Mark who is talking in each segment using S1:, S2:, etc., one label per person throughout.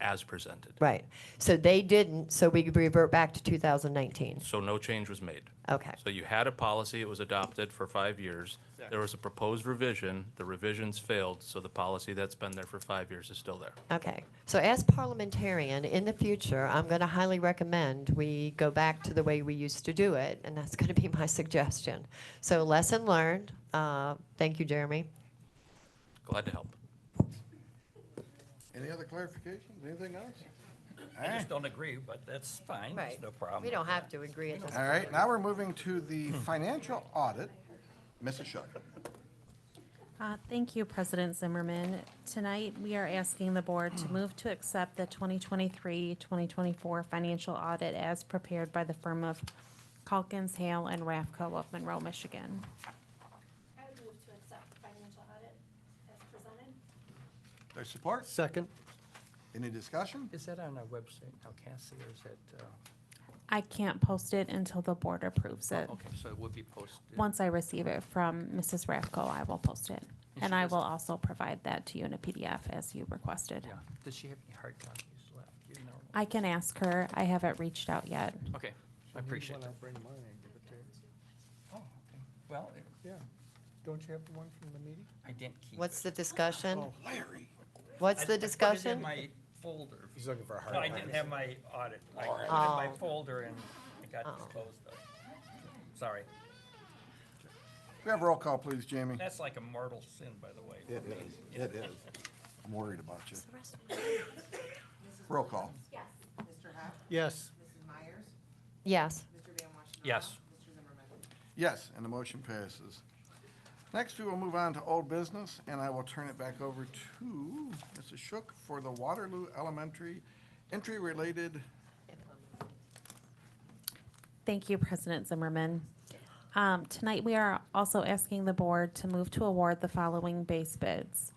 S1: as presented.
S2: Right. So they didn't, so we revert back to 2019.
S1: So no change was made.
S2: Okay.
S1: So you had a policy, it was adopted for five years. There was a proposed revision, the revisions failed, so the policy that's been there for five years is still there.
S2: Okay. So as parliamentarian, in the future, I'm going to highly recommend we go back to the way we used to do it, and that's going to be my suggestion. So lesson learned. Uh, Thank you, Jeremy.
S1: Glad to help.
S3: Any other clarifications, anything else?
S4: I just don't agree, but that's fine, There's no problem.
S2: We don't have to agree at this
S3: All right, now we're moving to the financial audit. Mrs. Shuck.
S5: Uh, Thank you, President Zimmerman. Tonight, we are asking the board to move to accept the 2023-2024 financial audit as prepared by the firm of Calkins, Hale, and Raffco of Monroe, Michigan.
S6: I would move to accept the financial audit as presented.
S3: There's support?
S7: Second.
S3: Any discussion?
S4: Is that on our website now, Cassie, or is that, uh,
S5: I can't post it until the board approves it.
S4: Oh, okay, so it would be posted.
S5: Once I receive it from Mrs. Raffco, I will post it. And I will also provide that to you in a PDF as you requested.
S4: Yeah, does she have any hard copies left, you know?
S5: I can ask her. I haven't reached out yet.
S4: Okay, I appreciate that.
S7: bring mine and give it to you.
S4: Oh, okay. Well, it-
S7: Yeah. Don't you have the one from the meeting?
S4: I didn't keep it.
S2: What's the discussion?
S3: Oh, Larry.
S2: What's
S4: Oh, I-
S2: the discussion?
S4: I put it in my folder.
S7: He's looking for a hard
S4: No, I didn't have my audit. I put it in my
S2: Oh.
S4: folder and it got
S2: Oh.
S4: disclosed though. Sorry.
S3: We have roll call, please, Jamie.
S4: That's like a mortal sin, by the way.
S3: It is, it is. I'm worried about you. Roll call.
S6: Yes.
S8: Mr. Huff,
S7: Yes.
S8: Mrs. Myers,
S2: Yes.
S8: Mr. Van Washington.
S4: Yes.
S8: Mr. Zimmerman.
S3: Yes, and the motion passes. Next, we will move on to old business, and I will turn it back over to Mrs. Shook for the Waterloo Elementary entry-related
S5: Thank you, President Zimmerman. Um, Tonight, we are also asking the board to move to award the following base bids.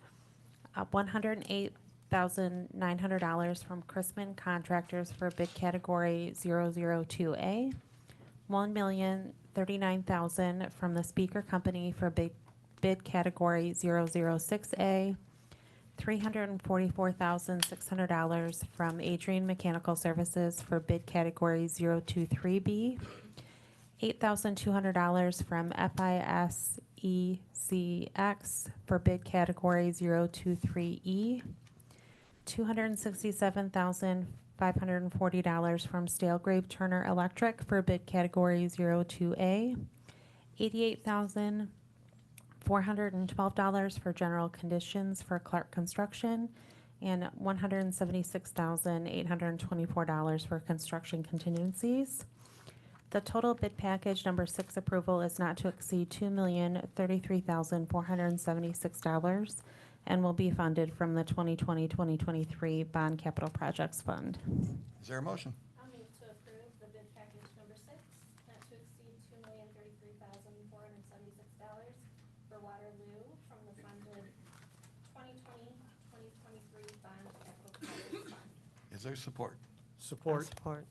S5: Uh, $108,900 from Chrisman Contractors for bid category 002A, $1,039,000 from the Speaker Company for bid bid category 006A, $344,600 from Adrian Mechanical Services for bid category 023B, $8,200 from FISECX E for bid category 023E, $267,540 from Stalegrave Turner Electric for bid category 02A, $88,000 four hundred and twelve dollars for general conditions for Clark Construction, and one hundred and seventy-six thousand eight hundred and twenty-four dollars for construction contingencies. The total bid package number six approval is not to exceed two million thirty-three thousand four hundred and seventy-six dollars and will be funded from the 2020-2023 Bond Capital Projects Fund.
S3: Is there a motion?
S6: I'll move to approve the bid package number six, not to exceed two million thirty-three thousand four hundred seventy-six dollars for Waterloo from the funded 2020-2023 bond capital projects fund.
S3: Is there support?
S7: Support.
S2: Support.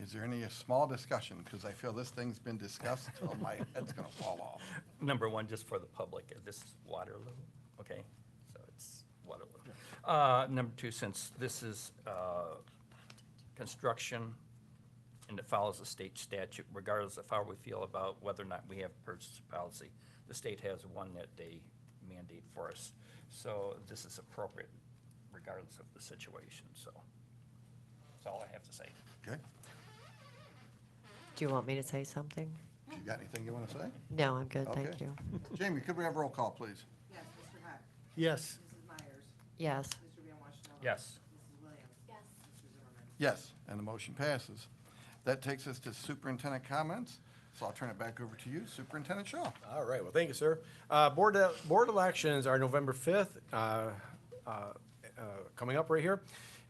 S3: Is there any small discussion? Because I feel this thing's been discussed till my head's gonna fall off.
S4: number one, just for the public, uh, this is Waterloo, okay? So it's Waterloo. Uh, Number two, since this is uh, construction and it follows the state statute, regardless of how we feel about whether or not we have purchase policy, the state has one that they mandate for us. So this is appropriate regardless of the situation, so that's all I have to say.
S3: Okay?
S2: Do you want me to say something?
S3: You got anything you want to say?
S2: No, I'm good, thank
S3: Okay.
S2: you.
S3: Jamie, could we have roll call, please?
S8: Yes, Mr. Huff,
S7: Yes.
S8: Mrs. Myers,
S2: Yes.
S8: Mr. Van Washington.
S4: Yes.
S8: Mrs. Williams,
S6: Yes.
S8: Mr. Zimmerman.
S3: Yes, and the motion passes. That takes us to superintendent comments, so I'll turn it back over to you, Superintendent Shaw.
S7: All right, well, thank you, sir. Uh, Board, uh, board elections are November 5th, uh, uh, uh, coming up right here.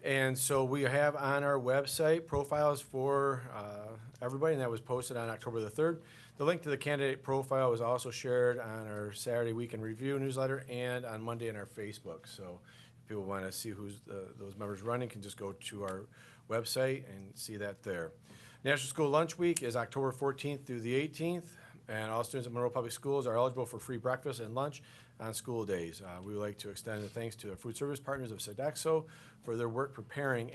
S7: And so we have on our website profiles for uh, everybody, and that was posted on October the 3rd. The link to the candidate profile was also shared on our Saturday Weekend Review newsletter and on Monday in our Facebook. So if people want to see who's, uh, those members running, can just go to our website and see that there. National School Lunch Week is October 14th through the 18th. And all students at Monroe Public Schools are eligible for free breakfast and lunch on school days. Uh, We would like to extend the thanks to our food service partners of Sodexo for their work preparing